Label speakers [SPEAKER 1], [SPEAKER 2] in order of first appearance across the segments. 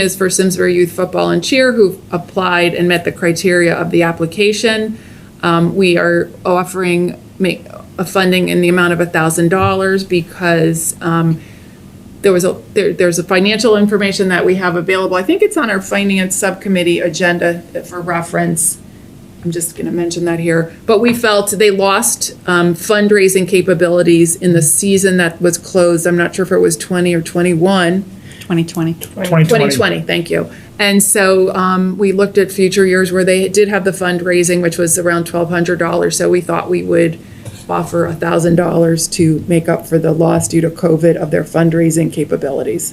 [SPEAKER 1] is for Simsbury Youth Football and Cheer who've applied and met the criteria of the application. Um, we are offering make, a funding in the amount of a thousand dollars because, um, there was a, there, there's a financial information that we have available. I think it's on our finance subcommittee agenda for reference. I'm just going to mention that here. But we felt they lost um, fundraising capabilities in the season that was closed. I'm not sure if it was 20 or 21.
[SPEAKER 2] 2020.
[SPEAKER 1] 2020, thank you. And so um, we looked at future years where they did have the fundraising, which was around $1,200. So we thought we would offer $1,000 to make up for the loss due to COVID of their fundraising capabilities.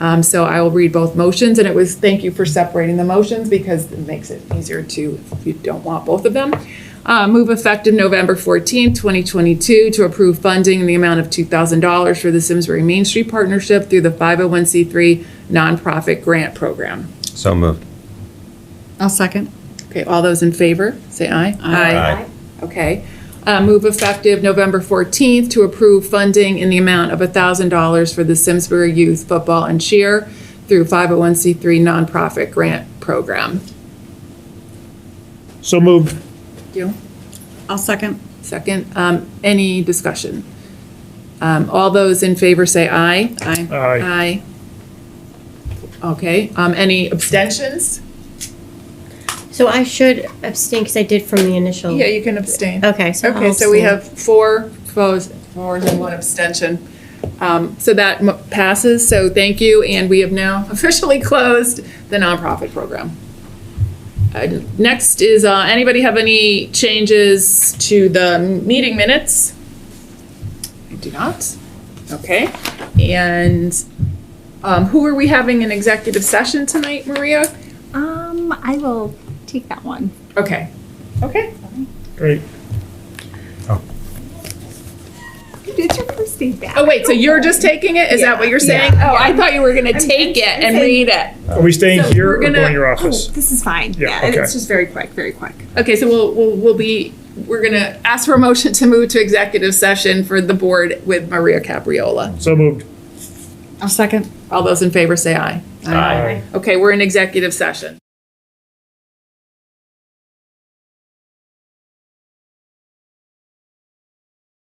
[SPEAKER 1] Um, So I will read both motions, and it was, thank you for separating the motions because it makes it easier to, if you don't want both of them. Uh, Move effective November 14, 2022, to approve funding in the amount of $2,000 for the Simsbury Main Street Partnership through the 501c3 nonprofit grant program.
[SPEAKER 3] So moved.
[SPEAKER 2] I'll second.
[SPEAKER 1] Okay, all those in favor, say aye.
[SPEAKER 3] Aye.
[SPEAKER 1] Okay. Uh, Move effective November 14th to approve funding in the amount of $1,000 for the Simsbury Youth Football and Cheer through 501c3 nonprofit grant program.
[SPEAKER 4] So moved.
[SPEAKER 1] You?
[SPEAKER 2] I'll second.
[SPEAKER 1] Second, um, any discussion? Um, All those in favor say aye.
[SPEAKER 2] Aye.
[SPEAKER 4] Aye.
[SPEAKER 1] Aye. Okay, um, any abstentions?
[SPEAKER 5] So I should abstain because I did from the initial.
[SPEAKER 1] Yeah, you can abstain.
[SPEAKER 5] Okay, so I'll
[SPEAKER 1] Okay, so we
[SPEAKER 5] abstain.
[SPEAKER 1] have four opposed, four and one abstention. Um, So that mo- passes, so thank you, and we have now officially closed the nonprofit program. Uh, Next is, uh, anybody have any changes to the meeting minutes? I do not. Okay, and um, who are we having an executive session tonight, Maria?
[SPEAKER 6] Um, I will take that one.
[SPEAKER 1] Okay, okay.
[SPEAKER 4] Great.
[SPEAKER 6] It's your first day back.
[SPEAKER 1] Oh, wait, so you're just taking it? Is that what you're saying? Oh, I thought you were going to take it and read it.
[SPEAKER 4] Are we staying
[SPEAKER 1] So
[SPEAKER 4] here
[SPEAKER 1] we're
[SPEAKER 4] or going
[SPEAKER 1] gonna-
[SPEAKER 4] to your
[SPEAKER 6] Oh,
[SPEAKER 4] office?
[SPEAKER 6] this is fine.
[SPEAKER 4] Yeah,
[SPEAKER 6] Yeah,
[SPEAKER 4] okay.
[SPEAKER 6] it's just very quick, very quick.
[SPEAKER 1] Okay, so we'll, we'll, we'll be, we're going to ask for a motion to move to executive session for the board with Maria Capriola.
[SPEAKER 4] So moved.
[SPEAKER 2] I'll second.
[SPEAKER 1] All those in favor say aye.
[SPEAKER 3] Aye.
[SPEAKER 1] Okay, we're in executive session.